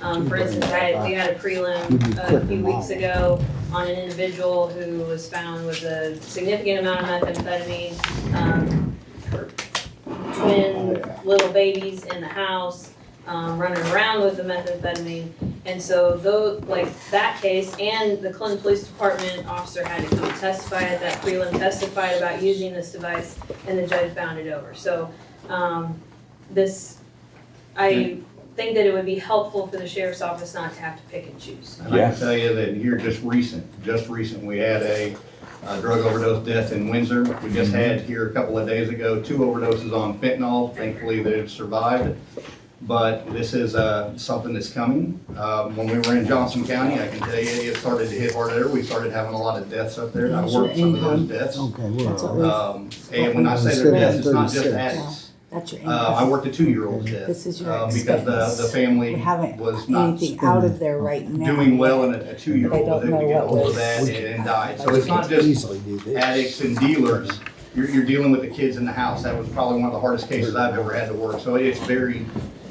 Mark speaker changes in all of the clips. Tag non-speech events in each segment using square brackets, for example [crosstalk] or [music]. Speaker 1: Um, for instance, I had, we had a prelim a few weeks ago on an individual who was found with a significant amount of methamphetamine. um, Twin little babies in the house, um, running around with the methamphetamine. And so though, like, that case and the Clinton Police Department officer had to come testify at that prelim, testified about using this device, and the judge bound it over. So, um, this, I think that it would be helpful for the sheriff's office not to have to pick and choose.
Speaker 2: And I
Speaker 3: Yeah.
Speaker 2: can tell you that here just recent, just recent, we had a uh, drug overdose death in Windsor. We just had here a couple of days ago, two overdoses on fentanyl. Thankfully, they've survived. But this is uh, something that's coming. Uh, When we were in Johnson County, I can tell you, it started to hit harder. We started having a lot of deaths up there. and I worked some of those deaths.
Speaker 4: Okay, well,
Speaker 2: Um, And when I say they're deaths, it's not just addicts.
Speaker 5: That's your
Speaker 2: Uh, I
Speaker 5: income.
Speaker 2: worked a two-year-old's death.
Speaker 5: This is your
Speaker 2: uh, Because
Speaker 5: expense.
Speaker 2: the, the family
Speaker 5: We haven't
Speaker 2: was not
Speaker 5: anything out of there right now.
Speaker 2: doing well and a a
Speaker 5: They
Speaker 2: two-year-old
Speaker 5: don't
Speaker 2: that
Speaker 5: know
Speaker 2: would get
Speaker 5: what
Speaker 2: hold of
Speaker 5: was-
Speaker 2: that and and die. So it's
Speaker 4: we
Speaker 2: not
Speaker 4: could
Speaker 2: just
Speaker 4: easily do this.
Speaker 2: addicts and dealers. You're, you're dealing with the kids in the house. That was probably one of the hardest cases I've ever had to work. So it's very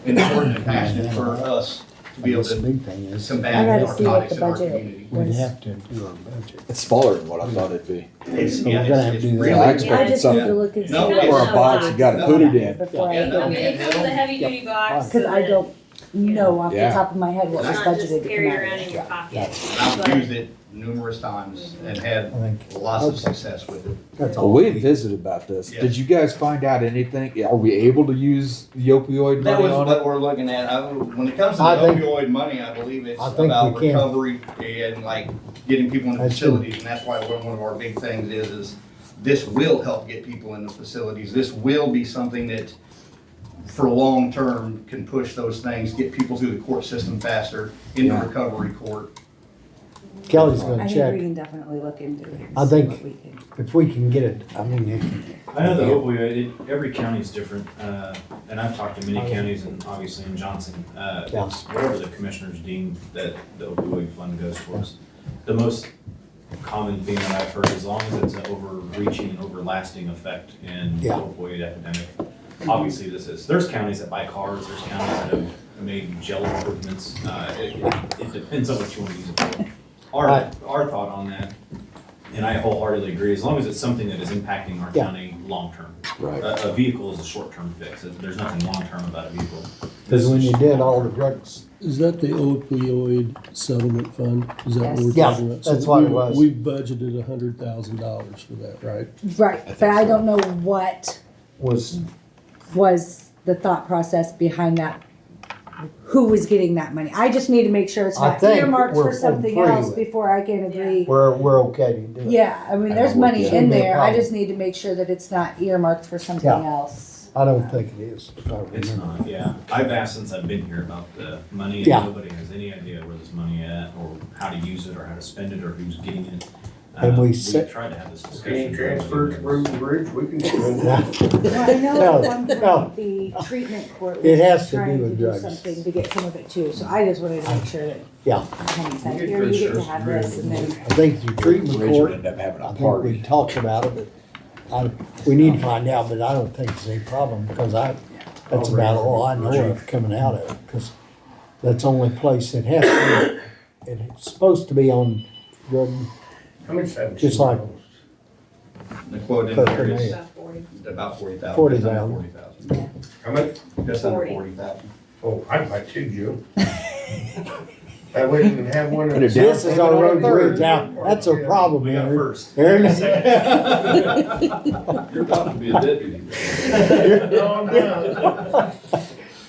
Speaker 2: important and passionate for us to be able
Speaker 4: This
Speaker 2: to
Speaker 4: big thing is,
Speaker 2: combat
Speaker 6: I'd rather see what
Speaker 2: narcotics
Speaker 6: the
Speaker 2: in our
Speaker 6: budget-
Speaker 2: community.
Speaker 4: we'd have to do our budget.
Speaker 3: It's smaller than what I thought it'd be.
Speaker 2: It's,
Speaker 4: But we're
Speaker 2: yeah,
Speaker 4: gonna have to
Speaker 2: it's,
Speaker 4: do
Speaker 2: it's
Speaker 4: that.
Speaker 2: really.
Speaker 3: I
Speaker 6: I
Speaker 3: expect
Speaker 6: just
Speaker 3: some-
Speaker 6: need to look and see.
Speaker 2: No,
Speaker 6: what
Speaker 2: it's-
Speaker 3: Or a box you gotta put it in.
Speaker 6: Before I
Speaker 2: Yeah, no,
Speaker 1: I mean,
Speaker 6: go,
Speaker 1: it comes with a heavy duty box.
Speaker 4: Yep.
Speaker 1: so
Speaker 6: Uh, cause I
Speaker 1: that
Speaker 6: don't know off the
Speaker 3: Yeah.
Speaker 6: top of my head what
Speaker 1: It's
Speaker 6: was
Speaker 1: not just
Speaker 6: budgeted to
Speaker 1: carry
Speaker 6: come
Speaker 1: around
Speaker 6: out.
Speaker 1: in your pocket.
Speaker 2: I've used it numerous times and
Speaker 4: I
Speaker 2: had
Speaker 4: think
Speaker 2: lots of success with it.
Speaker 4: that's
Speaker 3: Well,
Speaker 4: all.
Speaker 3: we had visited about this. Did you guys find out anything? Are we able to use the opioid
Speaker 2: That
Speaker 3: money
Speaker 2: was
Speaker 3: on it?
Speaker 2: what we're looking at. I, when it comes to the
Speaker 4: I think-
Speaker 2: opioid money, I believe it's
Speaker 4: I think
Speaker 2: about
Speaker 4: we can.
Speaker 2: recovery and like getting people in the
Speaker 4: That's true.
Speaker 2: facilities. And that's why one one of our big things is, is this will help get people in the facilities. This will be something that for long term can push those things, get people through the court system faster, into
Speaker 3: Yeah.
Speaker 2: recovery court.
Speaker 4: Kelly's
Speaker 6: I
Speaker 4: gonna
Speaker 6: think we
Speaker 4: check,
Speaker 6: can definitely look into it. and
Speaker 4: I
Speaker 6: see
Speaker 4: think-
Speaker 6: what we can-
Speaker 4: if we can get it, I mean, it-
Speaker 7: I know the opioid, it, every county's different, uh, and I've talked to many counties and obviously in Johnson, uh,
Speaker 4: Yeah.
Speaker 7: it's whatever the commissioners deem that the opioid fund goes towards. The most common thing that I've heard, as long as it's an overreaching and overlasting effect in the
Speaker 4: Yeah.
Speaker 7: opioid epidemic, obviously this is, there's counties that buy cars, there's counties that have made jail improvements, uh, it, it- it depends on what you wanna use it for. Our,
Speaker 4: Right.
Speaker 7: our thought on that, and I wholeheartedly agree, as long as it's something that is impacting our
Speaker 4: Yeah.
Speaker 7: county long-term.
Speaker 3: Right.
Speaker 7: A, a vehicle is a short-term fix. There's nothing long-term about a vehicle.
Speaker 4: cause when you did all the drugs,
Speaker 8: Is that the opioid settlement fund? Is that what we're
Speaker 6: Yes.
Speaker 4: Yeah,
Speaker 8: talking about? So
Speaker 4: that's what it
Speaker 8: we-
Speaker 4: was.
Speaker 8: We budgeted a hundred thousand dollars for that, right?
Speaker 6: Right,
Speaker 3: think
Speaker 6: but I
Speaker 3: so.
Speaker 6: don't know what
Speaker 4: was,
Speaker 6: was the thought process behind that, who was getting that money. I just need to make sure it's
Speaker 4: I
Speaker 6: not
Speaker 4: think
Speaker 6: earmarked
Speaker 4: we're-
Speaker 6: for
Speaker 4: we're
Speaker 6: something
Speaker 4: free
Speaker 6: else
Speaker 4: with-
Speaker 6: before I can agree.
Speaker 4: we're, we're okay to do it.
Speaker 6: Yeah, I mean,
Speaker 3: I
Speaker 6: there's
Speaker 3: don't want
Speaker 6: money
Speaker 3: to-
Speaker 6: in
Speaker 4: Shouldn't be a
Speaker 6: there, I
Speaker 4: problem.
Speaker 6: just need to make sure that it's not earmarked for something
Speaker 4: Yeah.
Speaker 6: else.
Speaker 4: I don't think it is, if I
Speaker 7: It's
Speaker 4: remember.
Speaker 7: not, yeah. I've asked since I've been here about the money and
Speaker 4: Yeah.
Speaker 7: nobody has any idea where this money at or how to use it or how to spend it or who's getting it.
Speaker 4: And
Speaker 7: Uh,
Speaker 4: we set-
Speaker 7: tried to have this discussion.
Speaker 9: Getting transferred to Roden Bridge, we can
Speaker 6: Well, I know at one
Speaker 4: [laughs] No,
Speaker 6: point the treatment court
Speaker 4: It has
Speaker 6: was
Speaker 4: to do
Speaker 6: trying to
Speaker 4: with
Speaker 6: do
Speaker 4: drugs.
Speaker 6: something to get some of it too, so I just wanted to make sure that.
Speaker 4: Yeah.
Speaker 6: Honey's like,
Speaker 9: You get
Speaker 6: here, you get to
Speaker 9: pictures.
Speaker 6: have this and then.
Speaker 4: I think the treatment
Speaker 3: Bridge
Speaker 4: court
Speaker 3: would end up having
Speaker 4: I
Speaker 3: a
Speaker 4: think we
Speaker 3: party.
Speaker 4: talked about it, but I, we need to find out, but I don't think it's a problem, because I, that's about all I know of coming out of it, because that's the only place it has to be. It's supposed to be on drug,
Speaker 9: How much time?
Speaker 4: Just like-
Speaker 2: The quote in there
Speaker 4: Perfect.
Speaker 2: is
Speaker 4: Yeah.
Speaker 1: About forty.
Speaker 2: about forty thousand.
Speaker 4: Forty thousand.
Speaker 2: Forty thousand.
Speaker 9: How much?
Speaker 2: Just under
Speaker 1: Forty.
Speaker 2: forty thousand.
Speaker 9: Oh, I'd like two, Joe. [laughs] I wouldn't even have one.
Speaker 3: Put it down.
Speaker 4: this is our road bridge out, that's a problem,
Speaker 7: We got
Speaker 4: Aaron.
Speaker 7: first.
Speaker 4: Aaron,
Speaker 7: Second. You're about to be a deputy.
Speaker 9: No, no.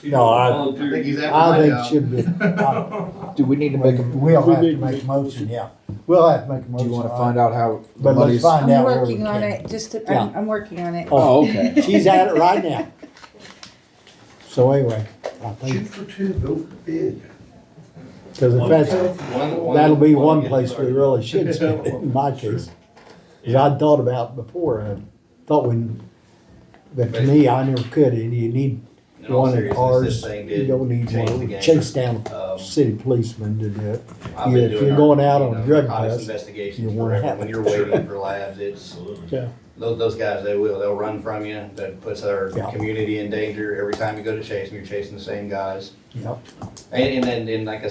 Speaker 4: no, I,
Speaker 2: I think he's after
Speaker 4: I
Speaker 2: my
Speaker 4: think it
Speaker 2: job.
Speaker 4: should be, I-
Speaker 3: Do we need to make a, do
Speaker 4: we'll have
Speaker 8: need
Speaker 4: to
Speaker 8: to
Speaker 4: make
Speaker 8: make
Speaker 4: a motion, yeah. We'll have to make a motion.
Speaker 3: you wanna find out how the
Speaker 4: But let's
Speaker 3: money's?
Speaker 4: find
Speaker 6: I'm
Speaker 4: out where we
Speaker 6: working on
Speaker 4: can.
Speaker 6: it, just, to-
Speaker 4: Yeah.
Speaker 6: I'm, I'm working on it.
Speaker 3: Oh, okay.
Speaker 4: She's at it right now. So anyway, I
Speaker 9: Two
Speaker 4: think,
Speaker 9: for two, go for bid.
Speaker 4: because if that's,
Speaker 2: One- one-
Speaker 4: That'll be one
Speaker 2: yeah.
Speaker 4: place we really
Speaker 2: [laughs]
Speaker 4: should spend it, in my case. 'Cause I'd thought about before, I thought when, but to me, I never could, and you need
Speaker 2: In all
Speaker 4: one at
Speaker 2: seriousness,
Speaker 4: ours,
Speaker 2: this thing
Speaker 4: you
Speaker 2: did
Speaker 4: don't need
Speaker 2: change the
Speaker 4: one,
Speaker 2: game.
Speaker 4: chase down
Speaker 2: Um,
Speaker 4: city policemen to do it.
Speaker 2: I've been
Speaker 4: Yeah, if
Speaker 2: doing
Speaker 4: you're
Speaker 2: our,
Speaker 4: going out on
Speaker 2: you know,
Speaker 4: drug
Speaker 2: narcotics
Speaker 4: tests,
Speaker 2: investigations
Speaker 4: you wanna
Speaker 2: forever.
Speaker 4: have
Speaker 2: When
Speaker 4: it.
Speaker 2: you're waiting for labs, it's
Speaker 7: Absolutely.
Speaker 8: Yeah.
Speaker 2: Those, those guys, they will, they'll uh, run from you. That puts our
Speaker 4: Yeah.
Speaker 2: community in danger. Every time you go to chase them, you're chasing the same guys.
Speaker 4: Yep.
Speaker 2: And, and then, and like I